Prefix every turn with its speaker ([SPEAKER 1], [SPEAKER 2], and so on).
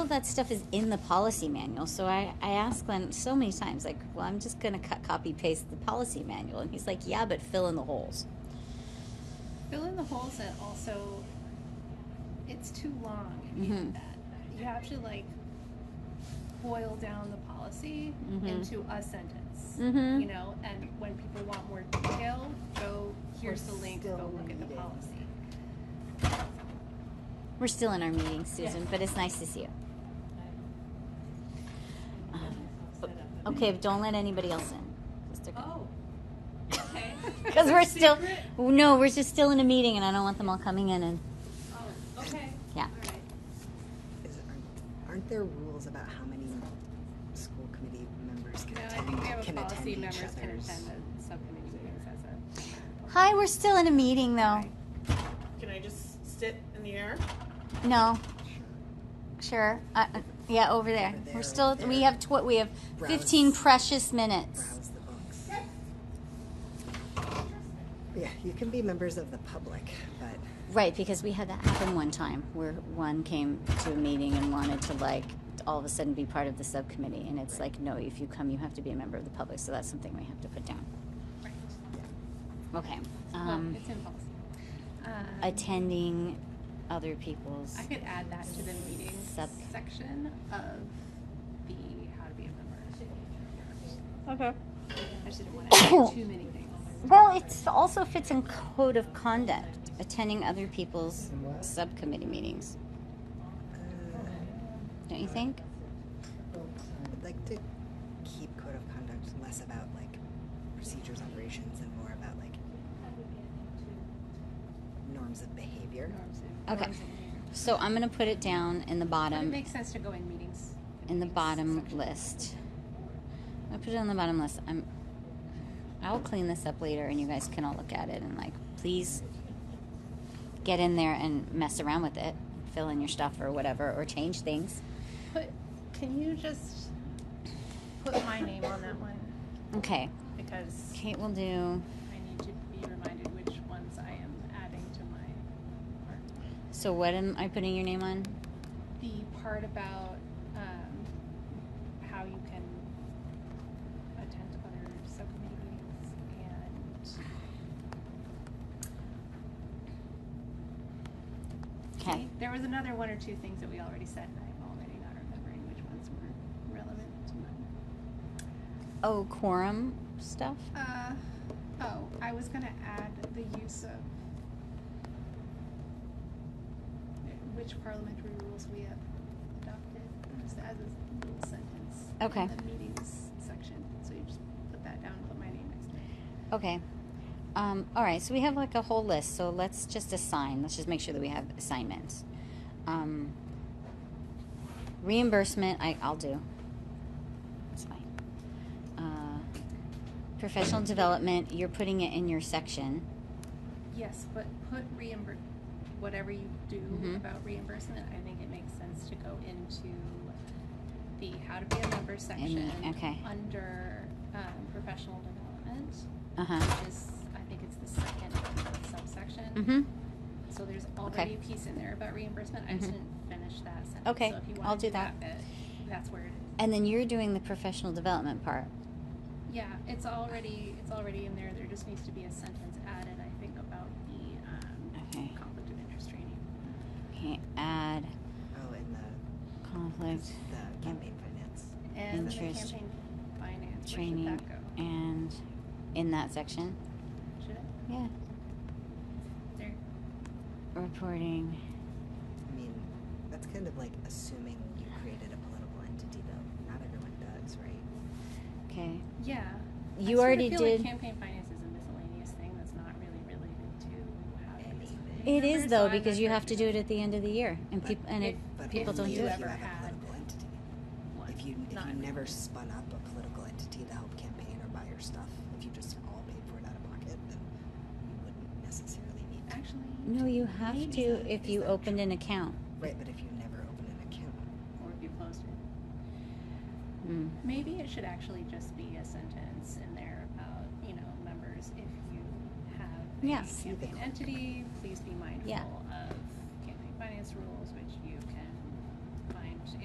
[SPEAKER 1] that stuff is in the policy manual. So I, I asked Glenn so many times, like, well, I'm just going to cut, copy, paste the policy manual. And he's like, yeah, but fill in the holes.
[SPEAKER 2] Fill in the holes and also it's too long if you do
[SPEAKER 3] Mm-hmm.
[SPEAKER 1] Mhm.
[SPEAKER 2] that. You have to like boil down the policy
[SPEAKER 1] Mhm.
[SPEAKER 2] into a sentence.
[SPEAKER 1] Mhm.
[SPEAKER 2] You know, and when people want more detail, go here's the link,
[SPEAKER 4] still
[SPEAKER 2] go
[SPEAKER 4] in
[SPEAKER 2] look
[SPEAKER 4] the
[SPEAKER 2] at the
[SPEAKER 4] meeting.
[SPEAKER 2] policy.
[SPEAKER 1] We're still in our meeting, Susan,
[SPEAKER 2] Yes.
[SPEAKER 1] but it's nice to see you. Um,
[SPEAKER 3] Set up a-
[SPEAKER 1] Okay, but don't let anybody else in. Just a-
[SPEAKER 3] Oh, okay.
[SPEAKER 1] Because we're still,
[SPEAKER 3] Secret?
[SPEAKER 1] no, we're just still in a meeting, and I don't want them all coming in. And
[SPEAKER 3] Oh, okay.
[SPEAKER 1] Yeah.
[SPEAKER 3] All right.
[SPEAKER 4] Is, aren't, aren't there rules about how many school committee members can
[SPEAKER 2] No, I
[SPEAKER 4] attend,
[SPEAKER 2] think we have a
[SPEAKER 4] can attend
[SPEAKER 2] policy
[SPEAKER 4] each
[SPEAKER 2] members can attend
[SPEAKER 4] other's?
[SPEAKER 2] the subcommittee meetings as a.
[SPEAKER 1] hi, we're still in a meeting though.
[SPEAKER 5] Can I just sit in the air?
[SPEAKER 1] No,
[SPEAKER 4] Sure.
[SPEAKER 1] sure, uh, uh, yeah, over there.
[SPEAKER 4] Over there,
[SPEAKER 1] We're still,
[SPEAKER 4] over
[SPEAKER 1] we
[SPEAKER 4] there.
[SPEAKER 1] have tw- we have
[SPEAKER 4] Browse.
[SPEAKER 1] fifteen precious minutes.
[SPEAKER 4] Browse the books. Yeah, you can be members of the public, but
[SPEAKER 1] Right, because we had that happen one time where one came to a meeting and wanted to like all of a sudden be part of the subcommittee, and it's like, no, if you come, you have to be a member of the public. So that's something we have to put down.
[SPEAKER 2] Right.
[SPEAKER 1] Okay.
[SPEAKER 2] Well,
[SPEAKER 1] Um,
[SPEAKER 2] it's in policy. Um,
[SPEAKER 1] attending other people's.
[SPEAKER 2] I could add that to the meeting
[SPEAKER 1] Sub-
[SPEAKER 2] section of the how to be a member.
[SPEAKER 1] Okay.
[SPEAKER 2] I just didn't want to add too many things.
[SPEAKER 1] Well, it also fits in code of conduct, attending other people's subcommittee meetings. Don't you think?
[SPEAKER 4] I'd like to keep code of conduct less about like procedures, operations, and more about like norms of behavior.
[SPEAKER 1] Okay. So I'm gonna put it down in the
[SPEAKER 2] But it
[SPEAKER 1] bottom,
[SPEAKER 2] makes sense to go in meetings.
[SPEAKER 1] in the
[SPEAKER 2] meetings
[SPEAKER 1] bottom
[SPEAKER 2] section.
[SPEAKER 1] list. I put it on the bottom list. I'm. I'll clean this up later, and you guys can all look at it and like, please get in there and mess around with it, fill in your stuff or whatever, or change things.
[SPEAKER 2] Put, can you just put my name on that one?
[SPEAKER 1] Okay,
[SPEAKER 2] Because
[SPEAKER 1] Kate will do.
[SPEAKER 2] I need to be reminded which ones I am adding to my part.
[SPEAKER 1] So what am I putting your name on?
[SPEAKER 2] the part about um, how you can attend other subcommittee meetings and
[SPEAKER 1] Okay.
[SPEAKER 2] there was another one or two things that we already said and I'm already not remembering which ones were relevant to mine.
[SPEAKER 1] Oh, quorum stuff.
[SPEAKER 2] Uh, oh, I was gonna add the use of which parliamentary rules we have adopted, just as a little sentence. in
[SPEAKER 1] Okay.
[SPEAKER 2] the meetings section, so you just put that down, put my name next to it.
[SPEAKER 1] Okay. Um, all right. So we have like a whole list. So let's just assign. Let's just make sure that we have assignments. Um, reimbursement. I, I'll do. It's fine. Uh, professional development. You're putting it in your section.
[SPEAKER 2] Yes, but put reimbur, whatever you do
[SPEAKER 1] Mhm.
[SPEAKER 2] about reimbursement, I think it makes sense to go into the how to be a member section.
[SPEAKER 1] okay.
[SPEAKER 2] Under, um, professional development.
[SPEAKER 1] Uh huh.
[SPEAKER 2] which is, I think it's the second subsection.
[SPEAKER 1] Mhm.
[SPEAKER 2] So there's already a piece in there about reimbursement. I just
[SPEAKER 1] Mhm.
[SPEAKER 2] didn't finish that sentence.
[SPEAKER 1] Okay,
[SPEAKER 2] So if you
[SPEAKER 1] I'll
[SPEAKER 2] want to
[SPEAKER 1] do
[SPEAKER 2] that. bit, that's where it is.
[SPEAKER 1] And then you're doing the professional development part.
[SPEAKER 2] Yeah, it's already it's already in there. There just needs to be a sentence added. I think about the um,
[SPEAKER 1] Okay.
[SPEAKER 2] conflict of interest training.
[SPEAKER 1] Okay. Add
[SPEAKER 4] Oh, and the,
[SPEAKER 1] conflict
[SPEAKER 4] the campaign finance.
[SPEAKER 2] And then the
[SPEAKER 1] Interest
[SPEAKER 2] campaign finance. Where
[SPEAKER 1] training
[SPEAKER 2] should that go?
[SPEAKER 1] and in that section.
[SPEAKER 2] Should it?
[SPEAKER 1] Yeah.
[SPEAKER 2] There.
[SPEAKER 1] Reporting.
[SPEAKER 4] I mean, that's kind of like assuming you created a political entity, though. Not everyone does, right?
[SPEAKER 1] Okay.
[SPEAKER 2] Yeah. I
[SPEAKER 1] You
[SPEAKER 2] sort of
[SPEAKER 1] already
[SPEAKER 2] feel
[SPEAKER 1] did.
[SPEAKER 2] Like campaign finance is a miscellaneous thing that's not really related to how to be a
[SPEAKER 4] Anything.
[SPEAKER 1] It
[SPEAKER 2] member,
[SPEAKER 1] is
[SPEAKER 2] so
[SPEAKER 1] though
[SPEAKER 2] I'm not
[SPEAKER 1] because you
[SPEAKER 2] sure
[SPEAKER 1] have
[SPEAKER 2] if
[SPEAKER 1] to do it at the end of the year, and
[SPEAKER 4] But
[SPEAKER 1] people and it,
[SPEAKER 4] But
[SPEAKER 1] people don't
[SPEAKER 4] only
[SPEAKER 1] do
[SPEAKER 4] if
[SPEAKER 1] it.
[SPEAKER 4] you
[SPEAKER 2] ever
[SPEAKER 4] have a
[SPEAKER 2] had
[SPEAKER 4] political entity.
[SPEAKER 2] one.
[SPEAKER 4] If you if
[SPEAKER 2] Not
[SPEAKER 4] you
[SPEAKER 2] everyone.
[SPEAKER 4] never spun up a political entity to help campaign or buy your stuff, if you just all paid for it out of pocket, then you wouldn't necessarily need to.
[SPEAKER 2] Actually,
[SPEAKER 1] No, you have
[SPEAKER 2] Maybe.
[SPEAKER 1] to if
[SPEAKER 4] Is
[SPEAKER 1] you
[SPEAKER 4] that
[SPEAKER 1] opened an account.
[SPEAKER 4] Right, but if you never open an account,
[SPEAKER 2] or if you closed it.
[SPEAKER 1] Mm.
[SPEAKER 2] Maybe it should actually just be a sentence in there about, you know, members, if you have a
[SPEAKER 1] Yes.
[SPEAKER 2] campaign entity, please be mindful
[SPEAKER 1] Yeah.
[SPEAKER 2] of campaign finance rules, which you can